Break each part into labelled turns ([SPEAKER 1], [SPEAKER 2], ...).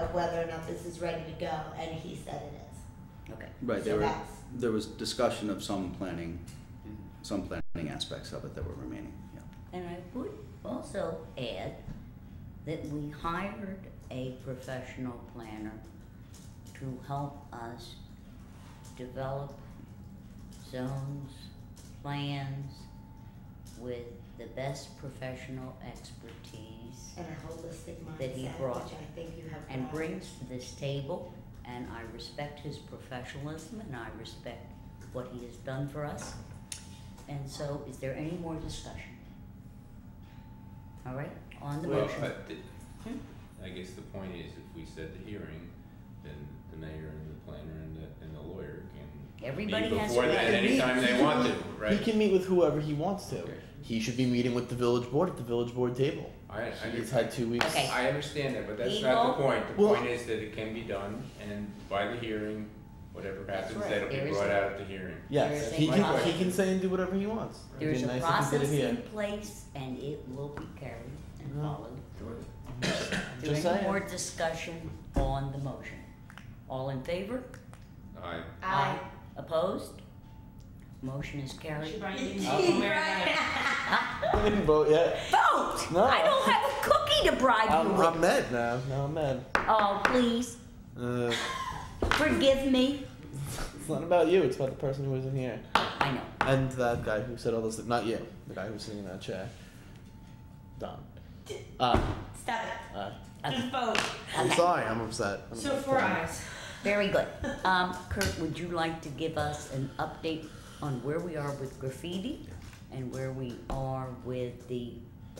[SPEAKER 1] of whether or not this is ready to go, and he said it is.
[SPEAKER 2] Okay.
[SPEAKER 3] Right,
[SPEAKER 1] So
[SPEAKER 3] there were,
[SPEAKER 1] that's-
[SPEAKER 3] there was discussion of some planning, some planning aspects of it that were remaining, yeah.
[SPEAKER 2] And I would also add that we hired a professional planner to help us develop zones, plans with the best professional expertise
[SPEAKER 1] And a holistic
[SPEAKER 2] That he
[SPEAKER 1] mindset,
[SPEAKER 2] brought.
[SPEAKER 1] which I think you have.
[SPEAKER 2] and
[SPEAKER 1] brought.
[SPEAKER 2] brings to this table. And I respect his professionalism and I respect what he has done for us. And so, is there any more discussion? All right, on the
[SPEAKER 4] Well,
[SPEAKER 2] motion.
[SPEAKER 4] I thi-
[SPEAKER 2] Hmm?
[SPEAKER 4] I guess the point is, if we set the hearing, then the mayor and the planner and the, and the lawyer can
[SPEAKER 2] Everybody
[SPEAKER 4] meet
[SPEAKER 2] has
[SPEAKER 4] before
[SPEAKER 2] to
[SPEAKER 4] that
[SPEAKER 2] be-
[SPEAKER 4] anytime they want to,
[SPEAKER 5] He
[SPEAKER 4] right?
[SPEAKER 5] can meet with whoever he wants to.
[SPEAKER 4] Okay.
[SPEAKER 5] He should be meeting with the village board at the village board table.
[SPEAKER 4] I, I,
[SPEAKER 5] He's
[SPEAKER 4] under-
[SPEAKER 5] had two weeks.
[SPEAKER 2] Okay.
[SPEAKER 4] I understand that, but that's not the point. The
[SPEAKER 5] Well-
[SPEAKER 4] point is that it can be done, and by the hearing, whatever
[SPEAKER 2] That's
[SPEAKER 4] happens,
[SPEAKER 2] right.
[SPEAKER 4] that'll be
[SPEAKER 2] There is
[SPEAKER 4] brought
[SPEAKER 2] a-
[SPEAKER 4] out at the hearing.
[SPEAKER 5] Yes,
[SPEAKER 2] There's
[SPEAKER 5] he
[SPEAKER 4] a
[SPEAKER 5] can,
[SPEAKER 4] process.
[SPEAKER 5] he can say and do whatever he wants. It'd
[SPEAKER 2] There's
[SPEAKER 5] be
[SPEAKER 2] a
[SPEAKER 5] nice if he did
[SPEAKER 2] process
[SPEAKER 5] it here.
[SPEAKER 2] in place and it will be carried and
[SPEAKER 5] Yeah.
[SPEAKER 2] followed. Is
[SPEAKER 5] Just
[SPEAKER 2] there any
[SPEAKER 5] saying.
[SPEAKER 2] more discussion on the motion? All in favor?
[SPEAKER 4] I,
[SPEAKER 1] Aye.
[SPEAKER 2] Opposed? Motion is
[SPEAKER 6] She
[SPEAKER 2] carried. Ah,
[SPEAKER 6] brought you
[SPEAKER 1] Gee,
[SPEAKER 6] to wear
[SPEAKER 1] right.
[SPEAKER 6] that.
[SPEAKER 5] I didn't vote yet.
[SPEAKER 2] Vote!
[SPEAKER 5] No.
[SPEAKER 2] I don't have a cookie to bribe you
[SPEAKER 5] I'm, I'm
[SPEAKER 2] with.
[SPEAKER 5] mad now. Now I'm mad.
[SPEAKER 2] Oh, please,
[SPEAKER 5] Uh,
[SPEAKER 2] forgive me.
[SPEAKER 5] it's not about you. It's about the person who isn't here
[SPEAKER 2] I know.
[SPEAKER 5] and that guy who said all those. Not you. The guy who's sitting in that chair. Don. Uh,
[SPEAKER 1] Stop it.
[SPEAKER 5] uh,
[SPEAKER 6] Just vote.
[SPEAKER 5] I'm
[SPEAKER 2] Okay.
[SPEAKER 5] sorry. I'm upset. I'm
[SPEAKER 6] So
[SPEAKER 5] upset.
[SPEAKER 6] four eyes.
[SPEAKER 2] Very good. Um, Kurt, would you like to give us an update on where we are with graffiti and where we are with the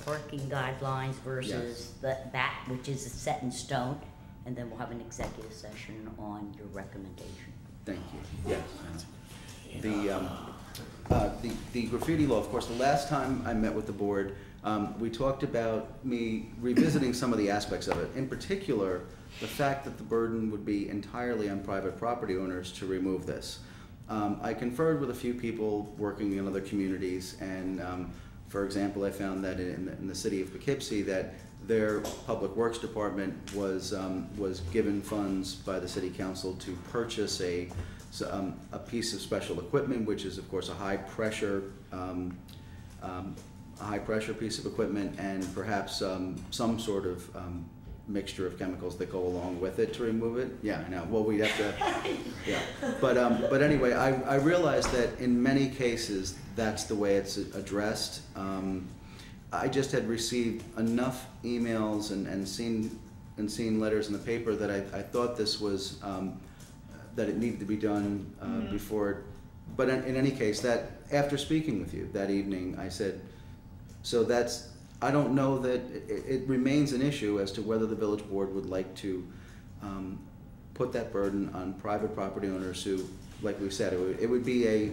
[SPEAKER 2] parking guidelines versus the, that which is set in stone? And then we'll have an executive session on your recommendation.
[SPEAKER 3] Thank you, yes. The, um, uh, the, the graffiti law, of course, the last time I met with the board, um, we talked about me revisiting some of the aspects of it. In particular, the fact that the burden would be entirely on private property owners to remove this. Um, I conferred with a few people working in other communities, and um, for example, I found that in the, in the city of Poughkeepsie that their public works department was um, was given funds by the city council to purchase a s- um, a piece of special equipment, which is of course a high pressure. Um, um, a high pressure piece of equipment and perhaps um, some sort of um, mixture of chemicals that go along with it to remove it. Yeah, I know. Well, we'd have to. yeah, but um, but anyway, I I realized that in many cases that's the way it's addressed. Um, I just had received enough emails and, and seen and seen letters in the paper that I, I thought this was um, that it needed to be done uh, before. But in, in any case, that after speaking with you that evening, I said, so that's I don't know that it, it remains an issue as to whether the village board would like to um, put that burden on private property owners who, like we've said, it would, it would be a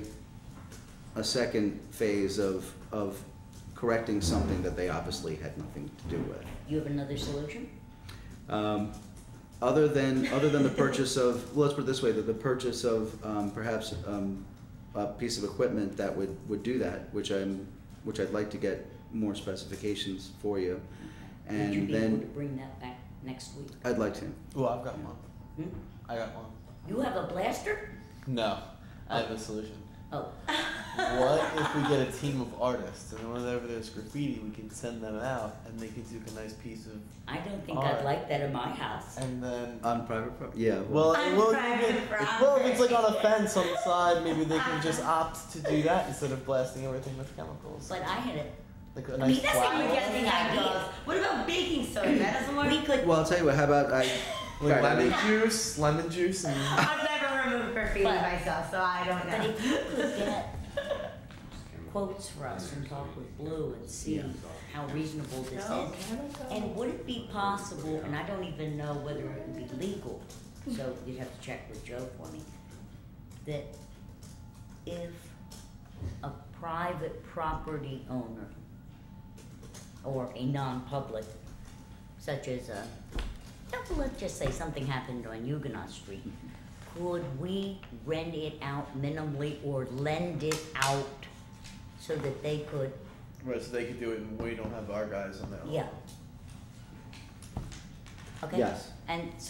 [SPEAKER 3] a second phase of of correcting something that they obviously had nothing to do with.
[SPEAKER 2] You have another solution?
[SPEAKER 3] Um, other than other than the purchase of, well, let's put it this way: that the purchase of um, perhaps um, a piece of equipment that would would do that, which I'm which I'd like to get more specifications for you,
[SPEAKER 2] Would you
[SPEAKER 3] and
[SPEAKER 2] be able to
[SPEAKER 3] then
[SPEAKER 2] bring that back next week?
[SPEAKER 3] I'd like to.
[SPEAKER 5] Well, I've got one.
[SPEAKER 2] Hmm?
[SPEAKER 5] I got one.
[SPEAKER 2] You have a blaster?
[SPEAKER 5] No, I have a solution.
[SPEAKER 2] Oh,
[SPEAKER 5] What if we get a team of artists and whenever there's graffiti, we can send them out and they can do a nice piece of,
[SPEAKER 2] I don't think
[SPEAKER 5] Alright.
[SPEAKER 2] I'd like that in my house.
[SPEAKER 5] and then. uh,
[SPEAKER 3] On private property, yeah.
[SPEAKER 5] Well,
[SPEAKER 1] I'm
[SPEAKER 5] well,
[SPEAKER 1] proud
[SPEAKER 5] if,
[SPEAKER 1] of Robert.
[SPEAKER 5] well, if it's like on a fence on the side, maybe they can just opt to do that instead of blasting everything with chemicals.
[SPEAKER 2] But I had a
[SPEAKER 5] Like a
[SPEAKER 1] I mean,
[SPEAKER 5] nice
[SPEAKER 1] that's how you
[SPEAKER 5] flower.
[SPEAKER 1] get the ideas. What about baking soda? That doesn't work.
[SPEAKER 2] We could,
[SPEAKER 3] well, I'll tell you what. How about I?
[SPEAKER 5] Like
[SPEAKER 3] Right, I
[SPEAKER 5] lemon
[SPEAKER 3] mean-
[SPEAKER 5] juice, lemon juice, and
[SPEAKER 1] I've never removed graffiti
[SPEAKER 2] But-
[SPEAKER 1] myself, so I don't
[SPEAKER 2] but
[SPEAKER 1] know.
[SPEAKER 2] if you could get quotes for us and talk with Blue and see
[SPEAKER 3] Yeah.
[SPEAKER 2] how reasonable this
[SPEAKER 1] No,
[SPEAKER 2] is.
[SPEAKER 1] can I go?
[SPEAKER 2] And would it be possible, and I don't even know whether it would be legal, so you'd have to check with Joe for me, that if a private property owner or a non-public, such as a, let's just say something happened on Huguenot Street, could we rent it out minimally or lend it out so that they could,
[SPEAKER 5] right, so they could do it, and we don't have our guys on there.
[SPEAKER 2] yeah? Okay?
[SPEAKER 3] Yes.
[SPEAKER 2] And so